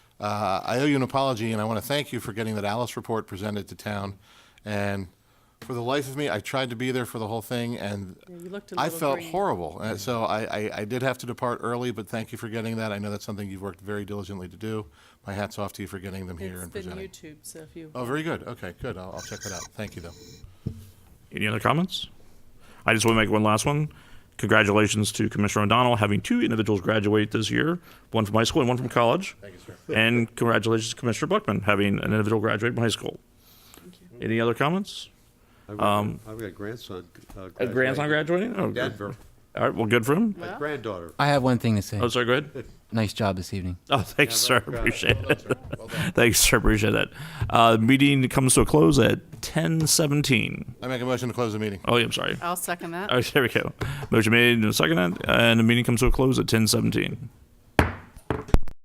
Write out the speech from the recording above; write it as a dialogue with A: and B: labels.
A: Uh, I owe you an apology, and I want to thank you for getting that Alice report presented to town. And for the life of me, I tried to be there for the whole thing, and
B: you looked a
A: I
B: little
A: felt
B: green.
A: horrible. And so I, I, I did have to depart early, but thank you for getting that. I know that's something you've worked very diligently to do. My hat's off to you for getting them here
B: It's
A: and
B: been
A: presenting.
B: YouTube, so if you.
A: Oh, very good. Okay, good. I'll, I'll check that out. Thank you, though.
C: Any other comments? I just want to make one last one. Congratulations to Commissioner O'Donnell having two individuals graduate this year, one from high school and one from college. Thank you, sir. And congratulations to Commissioner Buckman having an individual graduate from high school. Any other comments?
D: I've got I've got a grandson. uh,
C: Um, A grandson
D: graduating
C: graduating? Oh, good.
D: Denver,
C: All right, well, good for him.
D: my
B: Well.
D: granddaughter.
E: I have one thing to say.
C: Oh, sorry, go ahead.
E: Nice job this evening.
C: Oh, thanks, sir.
D: very good.
C: Appreciate it. Thanks, sir. Appreciate it. Uh, meeting comes to a close at 10:17.
A: I make a motion to close the meeting.
C: Oh, yeah, I'm sorry.
B: I'll second that.
C: Oh, there we go. Motion made and seconded, and the meeting comes to a close at 10:17.